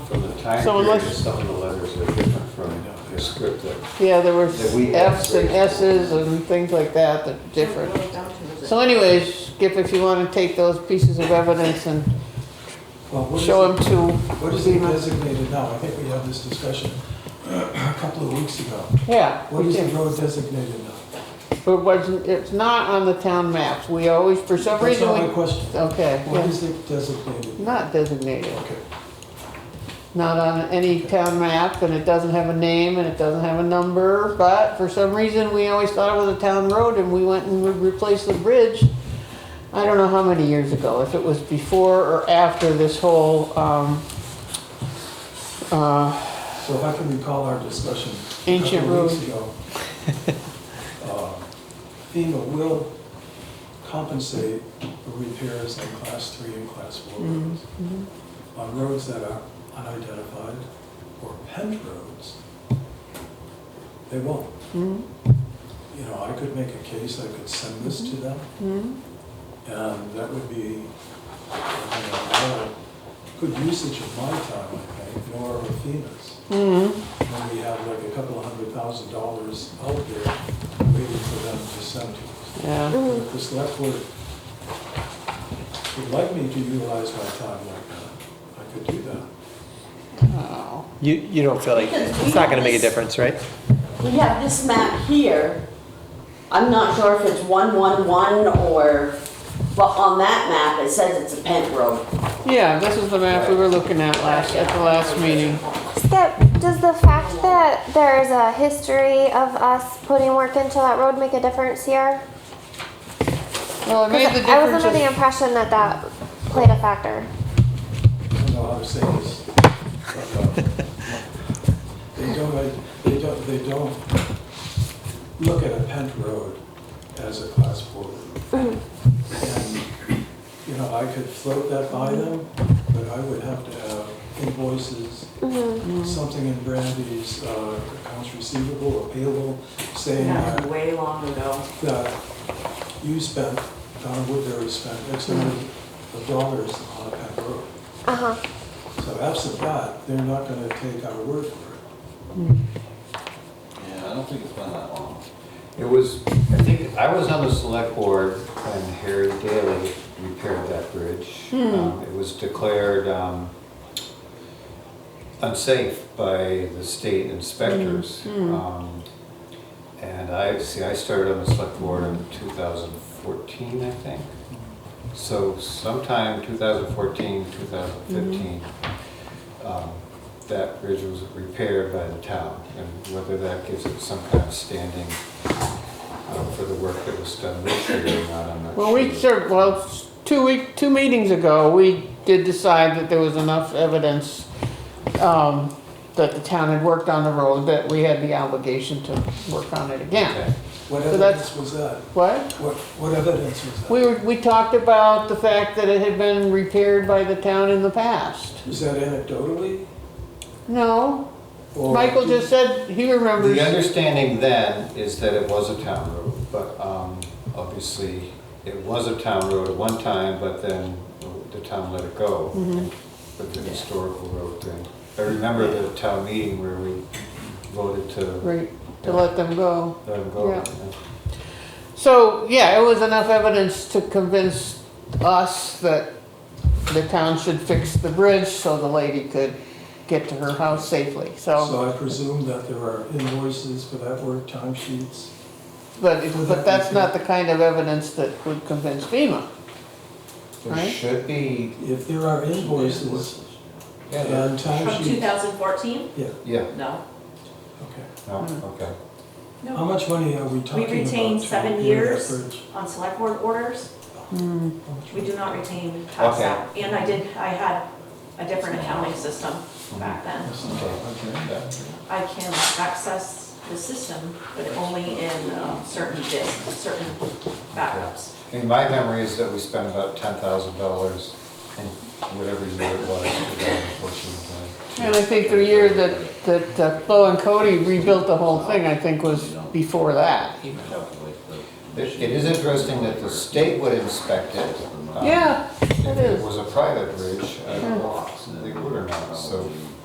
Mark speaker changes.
Speaker 1: time
Speaker 2: So unless-
Speaker 1: period, some of the letters are different from the script that
Speaker 2: Yeah, there were
Speaker 1: That we
Speaker 2: Fs and
Speaker 1: have.
Speaker 2: Ss and things like that that are different. So anyways, Skip, if you want to take those pieces of evidence and
Speaker 3: Well, what is
Speaker 2: show
Speaker 3: it-
Speaker 2: them to
Speaker 3: What is it designated now? I think we had this discussion a couple of weeks ago.
Speaker 2: Yeah,
Speaker 3: What
Speaker 2: we
Speaker 3: is the
Speaker 2: did.
Speaker 3: road designated now?
Speaker 2: But it wasn't, it's not on the town maps. We always, for some
Speaker 3: That's
Speaker 2: reason,
Speaker 3: not my
Speaker 2: we,
Speaker 3: question.
Speaker 2: okay,
Speaker 3: What
Speaker 2: yeah.
Speaker 3: is it designated?
Speaker 2: not designated.
Speaker 3: Okay,
Speaker 2: Not on any town map and it doesn't have a name and it doesn't have a number, but for some reason, we always thought it was a town road and we went and re- replaced the bridge. I don't know how many years ago, if it was before or after this whole, um, uh,
Speaker 3: so if I can recall our discussion a
Speaker 2: Ancient
Speaker 3: couple of
Speaker 2: road.
Speaker 3: weeks ago. uh, FEMA will compensate for repairs on class three and class four roads. On roads that are unidentified or pent roads, they won't.
Speaker 2: mhm,
Speaker 3: you know, I could make a case, I could send this to them,
Speaker 2: mhm.
Speaker 3: and that would be, you know, not a good usage of my time, I think, nor of FEMA's. When we have like a couple of hundred thousand dollars out there waiting for them to send to us.
Speaker 2: yeah,
Speaker 3: If the select board would like me to utilize my time like that, I could do that.
Speaker 2: oh.
Speaker 4: You, you don't feel like, it's not gonna make a difference, right?
Speaker 5: We have this map here. I'm not sure if it's 111 or, but on that map, it says it's a pent road.
Speaker 2: Yeah, this is the map we were looking at last, at the last meeting.
Speaker 6: That, does the fact that there is a history of us putting work into that road make a difference here?
Speaker 2: Well, it
Speaker 6: 'Cause
Speaker 2: made the
Speaker 6: I was
Speaker 2: difference.
Speaker 6: under the
Speaker 2: is-
Speaker 6: impression that that played a factor.
Speaker 3: I don't know how to say this. but, uh, They don't, uh, they don't, they don't look at a pent road as a class four road. And, you know, I could float that by them, but I would have to have invoices, something in Brandy's uh, accounts receivable or payable saying
Speaker 5: That was
Speaker 3: that,
Speaker 5: way long ago.
Speaker 3: that you spent, Donna Woodbury spent X amount of dollars on a pent road.
Speaker 6: Uh-huh.
Speaker 3: So absent that, they're not gonna take our word for it.
Speaker 7: Yeah, I don't think it's been that long.
Speaker 1: It was, I think, I was on the select board when Harry Daly repaired that bridge.
Speaker 2: Hmm.
Speaker 1: Um, It was declared um, unsafe by the state inspectors.
Speaker 2: Mm-hmm. Hmm.
Speaker 1: Um, And I, see, I started on the select board in 2014, I think. So sometime 2014, 2015,
Speaker 2: Mm-hmm.
Speaker 1: um, that bridge was repaired by the town. And whether that gives it some kind of standing uh, for the work that was done this year or not, I'm not sure.
Speaker 2: Well, we sort, well, two week, two meetings ago, we did decide that there was enough evidence, um, that the town had worked on the road, that we had the obligation to work on it again.
Speaker 1: Okay.
Speaker 3: What
Speaker 2: So that's-
Speaker 3: evidence was that?
Speaker 2: What?
Speaker 3: What, what evidence was that?
Speaker 2: We were, we talked about the fact that it had been repaired by the town in the past.
Speaker 3: Was that anecdotally?
Speaker 2: No,
Speaker 3: or-
Speaker 2: Michael just said he remembers.
Speaker 1: The understanding then is that it was a town road, but um, obviously, it was a town road at one time, but then the town let it go
Speaker 2: Mm-hmm.
Speaker 1: with the historical road thing. I remember the town meeting where we voted to let
Speaker 2: Right, to let them go.
Speaker 1: it go.
Speaker 2: Yeah.
Speaker 1: yeah.
Speaker 2: So, yeah, it was enough evidence to convince us that the town should fix the bridge so the lady could get to her house safely, so.
Speaker 3: So I presume that there are invoices for that work, timesheets?
Speaker 2: But, it- but that's not the kind of evidence that would convince FEMA.
Speaker 1: There
Speaker 2: Right.
Speaker 1: should be,
Speaker 3: If there are invoices
Speaker 1: yeah, there-
Speaker 3: and
Speaker 5: From
Speaker 3: timesheets,
Speaker 5: 2014?
Speaker 3: yeah,
Speaker 1: yeah,
Speaker 5: No.
Speaker 3: okay.
Speaker 2: Mm-hmm.
Speaker 1: no, okay.
Speaker 3: How much money are we talking
Speaker 5: We
Speaker 3: about?
Speaker 5: retain
Speaker 3: to
Speaker 5: seven
Speaker 3: repair that
Speaker 5: years
Speaker 3: bridge?
Speaker 5: on select board orders.
Speaker 2: Hmm.
Speaker 3: How much
Speaker 5: We
Speaker 3: money?
Speaker 5: do not retain tax
Speaker 1: Okay.
Speaker 5: out. And I did, I had a different accounting system back then. I can access the system, but only in um, certain disks, certain backups.
Speaker 1: And my memory is that we spent about ten thousand dollars in whatever year it was, unfortunately.
Speaker 2: And I think the year that, that uh, Bo and Cody rebuilt the whole thing, I think was before that.
Speaker 1: It it is interesting that the state would inspect it. um,
Speaker 2: Yeah,
Speaker 1: If
Speaker 2: it
Speaker 1: it
Speaker 2: is. Hmm.
Speaker 1: was a private bridge, I don't know if they uh, would or not, so